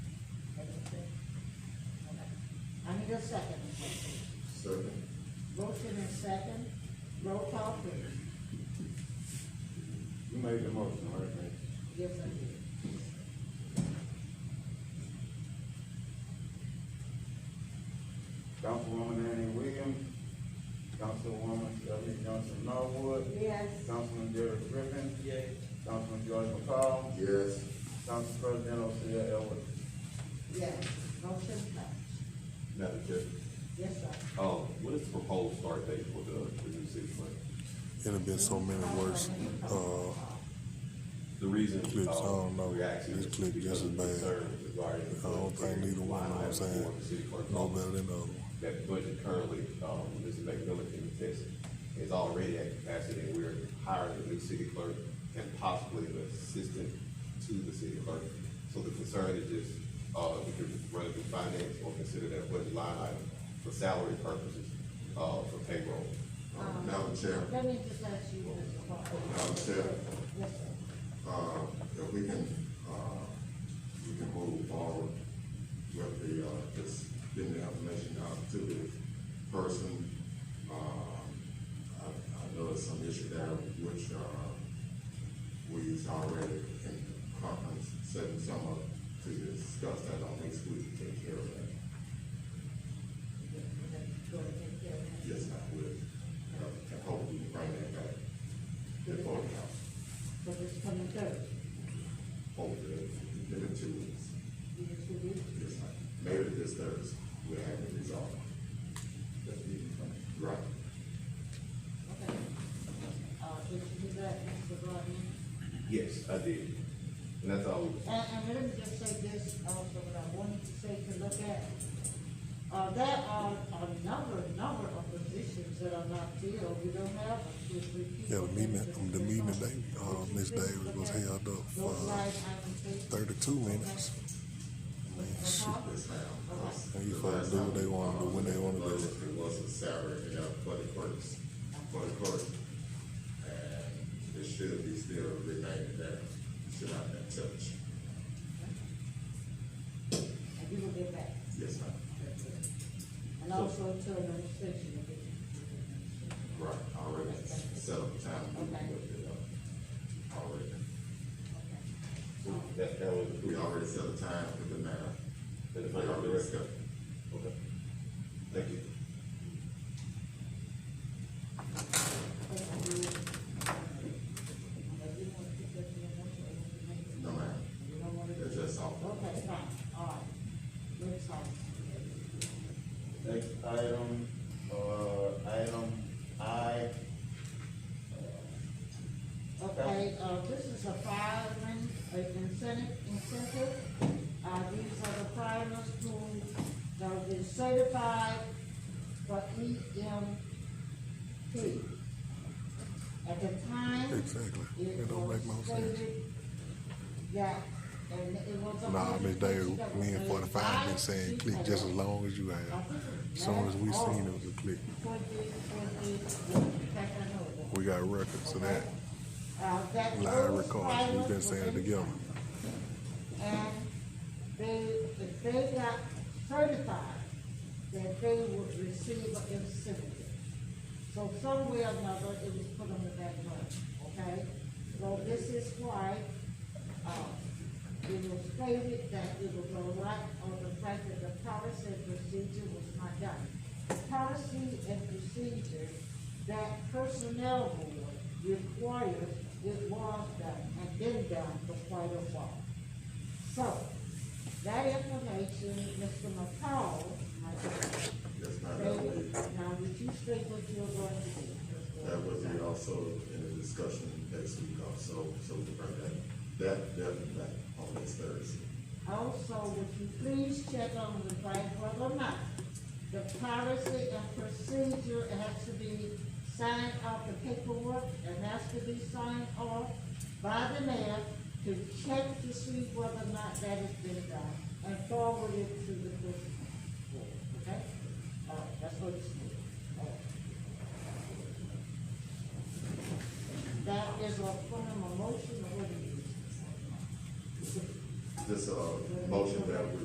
the second. Second. Motion and second, roll call please. You made the motion, right, Nick? Yes, I did. Councilwoman Annie Williams, Councilwoman Shirley Johnson Norwood, Yes. Councilman Derek Griffin, Yay. Councilman George McCall. Yes. Council President Osia Elwood. Yes. Motion passed. Madam Chair, Yes, sir. um, what is the proposed start date for the, the new city plan? It'd have been so many worse. Uh, The reason, Clips, I don't know. um, we actually. This clip because just as of the bad. concerns regarding the I don't think budget neither one, line know what I'm item for saying, the city clerk's no office. better than the other one. That budget currently, um, Mr. McMillan can attest, is already at capacity, and we're hiring a new city clerk and possibly an assistant to the city clerk. So the concern is just, uh, if we could run it through finance or consider that budget line item for salary purposes, uh, for payroll. Um, Madam Chair, Let me just ask you, Mr. Parker. Madam Chair, Yes, sir. uh, if we can, uh, we can move forward with the, uh, just getting the information out to the person. Um, I, I know there's some issue there which, uh, we've already in conference, setting some up to discuss that on next week, take care of that. Go ahead and take care of that. Yes, I will. Uh, I hope we can bring that back before the council. But it's coming Thursday. Hold it, give it two weeks. You just review it. Yes, ma'am. Maybe this Thursday, we'll have it resolved. Right. Okay. Uh, did you do that, Mr. Rodney? Yes, I did. And that's all we And, Uh, and let me just say this also, what I wanted to say to look at. Uh, there are a number, number of positions that are not filled, we don't have a two, or three Yeah, people. the meeting, that can the take meeting on. today, uh, Ms. Davis was held up for Those line items, they- thirty-two minutes. Man, shit, Yes, ma'am. And you folks do what they wanna do, when they wanna do it. It was a Saturday, uh, for the first, for the first. And it should be still remaining there, should not have touched. And you will get back. Yes, ma'am. And also to administration. if it- Right, already set up the time. we Okay. looked it up. Already, Okay. That, that was we already set a time for the matter. And if We I got the already rest set. of it. Okay. Thank you. Thank you. Now, you want to pick up your motion or you make it? No, ma'am. You don't want to do It's it? just off. Okay, fine, all right. Let's talk. Next item, uh, item I, uh, Okay, uh, this is a fireman, uh, incentive, incentive. Uh, these are the firemen who are been certified for E EMT. At the time. Exactly. It don't make no was sense. stated That, and it was. a Nah, Ms. hundred Davis, percent me and forty-five been saying click just as long as you have. Soon as we seen it was a click. Twenty, twenty, in fact, I know it was. We got records of that, Uh, that live those records, we've been pilots saying it were in- together. And they, if they got certified, that they would receive an incentive. So some way or another, it was put on the back burner, okay? So this is why, uh, it was stated that it was a lot on the fact that the policy and procedure was not done. Policy and procedure that personnel board requires, it was done, and been done for quite a while. So, that information, Mr. McCall, I think, Yes, ma'am. stated, now would you state what you're going to do? Mr. That would be McCall? also in the discussion next week also, so we bring that, that definitely back on this Thursday. Also, would you please check on the right whether or not the policy and procedure has to be signed off, the paperwork, and has to be signed off by the mayor to check to see whether or not that has been done, and forward it to the person. Okay? All right, that's what it's for. All right. That is a form of motion, or what it is. This, uh, motion that we